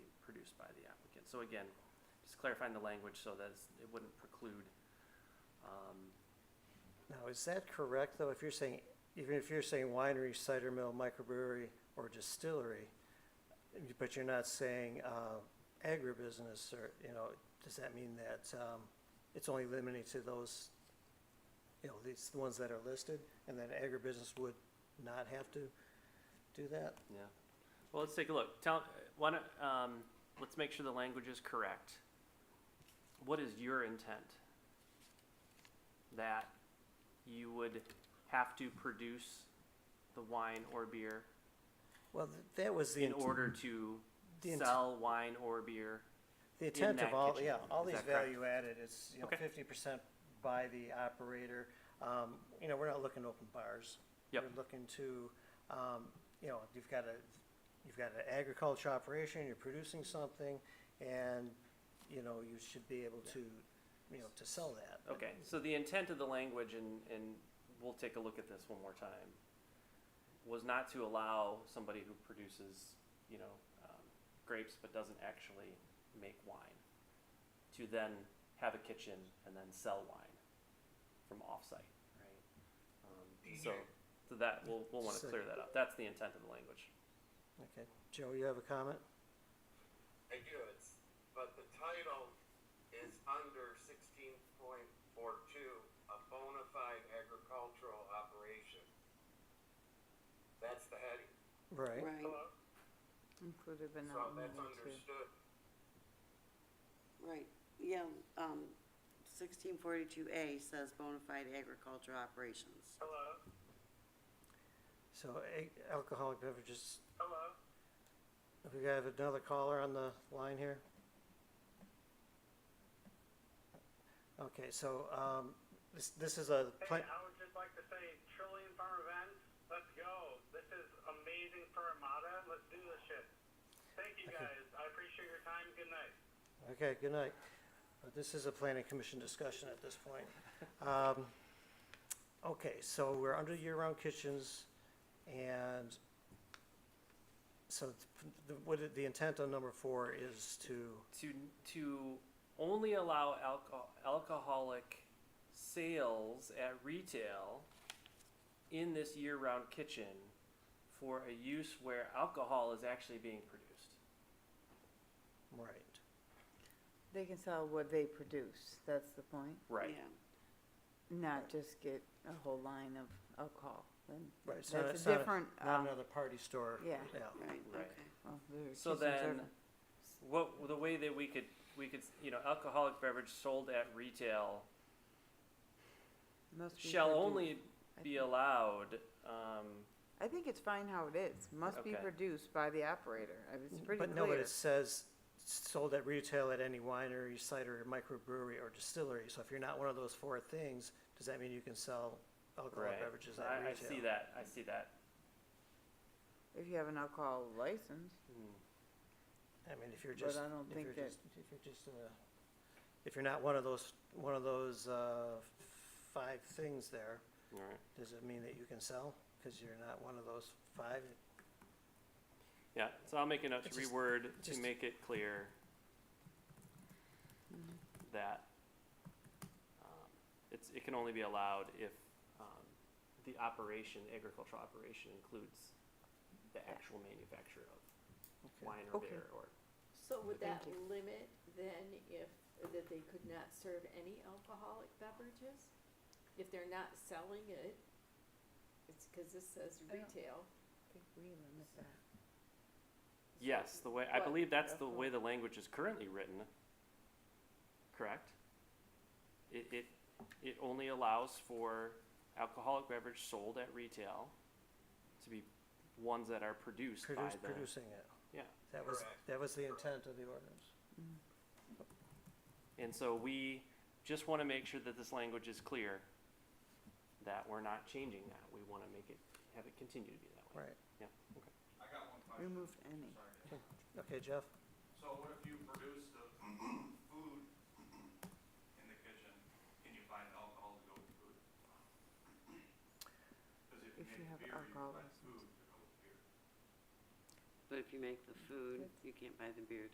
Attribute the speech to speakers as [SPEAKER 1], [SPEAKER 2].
[SPEAKER 1] So again, just clarifying the language so that it's- it wouldn't preclude, um,
[SPEAKER 2] Now, is that correct, though, if you're saying, even if you're saying winery, cider mill, microbrewery, or distillery, but you're not saying, uh, agribusiness, or, you know, does that mean that, um, it's only limited to those, you know, these, the ones that are listed, and that agribusiness would not have to do that?
[SPEAKER 1] yeah. Well, let's take a look. Tell, why don't, um, let's make sure the language is correct. What is your intent? That you would have to produce the wine or beer
[SPEAKER 2] Well, th- that was the.
[SPEAKER 1] in
[SPEAKER 2] int-
[SPEAKER 1] order to
[SPEAKER 2] the int-
[SPEAKER 1] sell wine or beer?
[SPEAKER 2] The intent
[SPEAKER 1] that
[SPEAKER 2] of all,
[SPEAKER 1] kitchen.
[SPEAKER 2] yeah, all
[SPEAKER 1] Is
[SPEAKER 2] these
[SPEAKER 1] that correct?
[SPEAKER 2] value added, it's, you know,
[SPEAKER 1] Okay.
[SPEAKER 2] fifty percent by the operator. Um, you know, we're not looking to open bars.
[SPEAKER 1] Yep.
[SPEAKER 2] We're looking to, um, you know, you've got a, you've got an agriculture operation, you're producing something, and, you know, you should be able to, you know, to sell that.
[SPEAKER 1] Okay, so the intent of the language, and, and we'll take a look at this one more time, was not to allow somebody who produces, you know, um, grapes but doesn't actually make wine to then have a kitchen and then sell wine from offsite, right? Um, so, so that we'll, we'll want to clear that up. That's the intent of the language.
[SPEAKER 2] Okay. Joe, you have a comment?
[SPEAKER 3] I do, it's, but the title is under sixteen point four two, a bona fide agricultural operation. That's the heading,
[SPEAKER 2] Right.
[SPEAKER 4] Right,
[SPEAKER 3] Hello?
[SPEAKER 5] And put a
[SPEAKER 3] so
[SPEAKER 5] banana in
[SPEAKER 3] that's
[SPEAKER 5] there too.
[SPEAKER 3] understood.
[SPEAKER 4] right, yeah, um, sixteen forty-two A says bona fide agricultural operations.
[SPEAKER 3] Hello,
[SPEAKER 2] So a- alcoholic beverages,
[SPEAKER 3] hello?
[SPEAKER 2] we have another caller on the line here? Okay, so, um, this, this is a plan,
[SPEAKER 6] Hey, I would just like to say Trillion Farm Events, let's go. This is amazing for Armada. Let's do this shit. Thank you guys. I appreciate your time. Good night.
[SPEAKER 2] okay, good night. Uh, This is a planning commission discussion at this point. Um, okay, so we're under year-round kitchens and so th- the, what, it- the intent on number four is to,
[SPEAKER 1] to to only allow alco- alcoholic sales at retail in this year-round kitchen for a use where alcohol is actually being produced.
[SPEAKER 2] right,
[SPEAKER 5] They can sell what they produce, that's the point,
[SPEAKER 4] Yeah.
[SPEAKER 5] not just get a whole line of alcohol. Then
[SPEAKER 2] right. it's not-
[SPEAKER 5] That's
[SPEAKER 2] it's
[SPEAKER 5] a
[SPEAKER 2] not
[SPEAKER 5] different,
[SPEAKER 2] Not
[SPEAKER 5] um,
[SPEAKER 2] another party store.
[SPEAKER 5] yeah.
[SPEAKER 2] Yeah,
[SPEAKER 4] Right,
[SPEAKER 1] Right.
[SPEAKER 4] okay.
[SPEAKER 5] well, the
[SPEAKER 1] So
[SPEAKER 5] kitchens are
[SPEAKER 1] then-
[SPEAKER 5] not-
[SPEAKER 1] What the way that we could we could you know alcoholic beverage sold at retail
[SPEAKER 5] must be
[SPEAKER 1] shall
[SPEAKER 5] produced.
[SPEAKER 1] only
[SPEAKER 5] I
[SPEAKER 1] be
[SPEAKER 5] think-
[SPEAKER 1] allowed. Um,
[SPEAKER 5] I think it's fine how it is, must be
[SPEAKER 1] Okay.
[SPEAKER 5] produced by the operator, I mean, it's pretty
[SPEAKER 2] Mm, But no, but
[SPEAKER 5] clear.
[SPEAKER 2] it says sold at retail at any winery, cider, microbrewery, or distillery. So if you're not one of those four things, does that mean you can sell alcohol
[SPEAKER 1] right.
[SPEAKER 2] beverages at
[SPEAKER 1] I, I
[SPEAKER 2] retail?
[SPEAKER 1] see that. I see that.
[SPEAKER 5] If you have an alcohol license,
[SPEAKER 1] Hmm.
[SPEAKER 2] I mean, if you're
[SPEAKER 5] but
[SPEAKER 2] just,
[SPEAKER 5] I don't
[SPEAKER 2] if
[SPEAKER 5] think
[SPEAKER 2] you're
[SPEAKER 5] that-
[SPEAKER 2] just, if you're just, uh, if you're not one of those, one of those, uh, five things there,
[SPEAKER 1] All right.
[SPEAKER 2] does it mean that you can sell? Cause you're not one of those five?
[SPEAKER 1] Yeah, so I'll make a note to
[SPEAKER 2] It's just-
[SPEAKER 1] reword to
[SPEAKER 2] just-
[SPEAKER 1] make it clear
[SPEAKER 2] Mm-hmm.
[SPEAKER 1] that um, it's, it can only be allowed if um, the operation, agricultural operation includes the actual manufacture of
[SPEAKER 2] Okay.
[SPEAKER 1] wine or
[SPEAKER 5] Okay.
[SPEAKER 1] beer or,
[SPEAKER 7] So would that
[SPEAKER 5] Thank you.
[SPEAKER 7] limit then if, that they could not serve any alcoholic beverages? If they're not selling it, it's cause this says
[SPEAKER 5] I don't-
[SPEAKER 7] retail.
[SPEAKER 5] I think we limit that.
[SPEAKER 1] yes, the way, I
[SPEAKER 7] But-
[SPEAKER 1] believe that's the way the language is currently written, correct? It, it, it only allows for alcoholic beverage sold at retail to be ones that are produced by
[SPEAKER 2] Produce,
[SPEAKER 1] the.
[SPEAKER 2] producing it.
[SPEAKER 1] Yeah.
[SPEAKER 2] That was,
[SPEAKER 3] Correct.
[SPEAKER 2] that was the intent of the ordinance.
[SPEAKER 1] And so we just want to make sure that this language is clear, that we're not changing that. We want to make it, have it continue to be that way.
[SPEAKER 2] Right.
[SPEAKER 1] Yeah, okay.
[SPEAKER 8] I got one question.
[SPEAKER 5] Remove any.
[SPEAKER 8] Sorry. to-
[SPEAKER 2] Okay, Jeff?
[SPEAKER 8] So what if you produce the food in the kitchen and you find alcohol to go with food? Because if you
[SPEAKER 5] If you have
[SPEAKER 8] make beer, you
[SPEAKER 5] alcohol
[SPEAKER 8] can buy
[SPEAKER 5] license.
[SPEAKER 8] food to go with beer.
[SPEAKER 4] But if you make the food, you can't buy the beer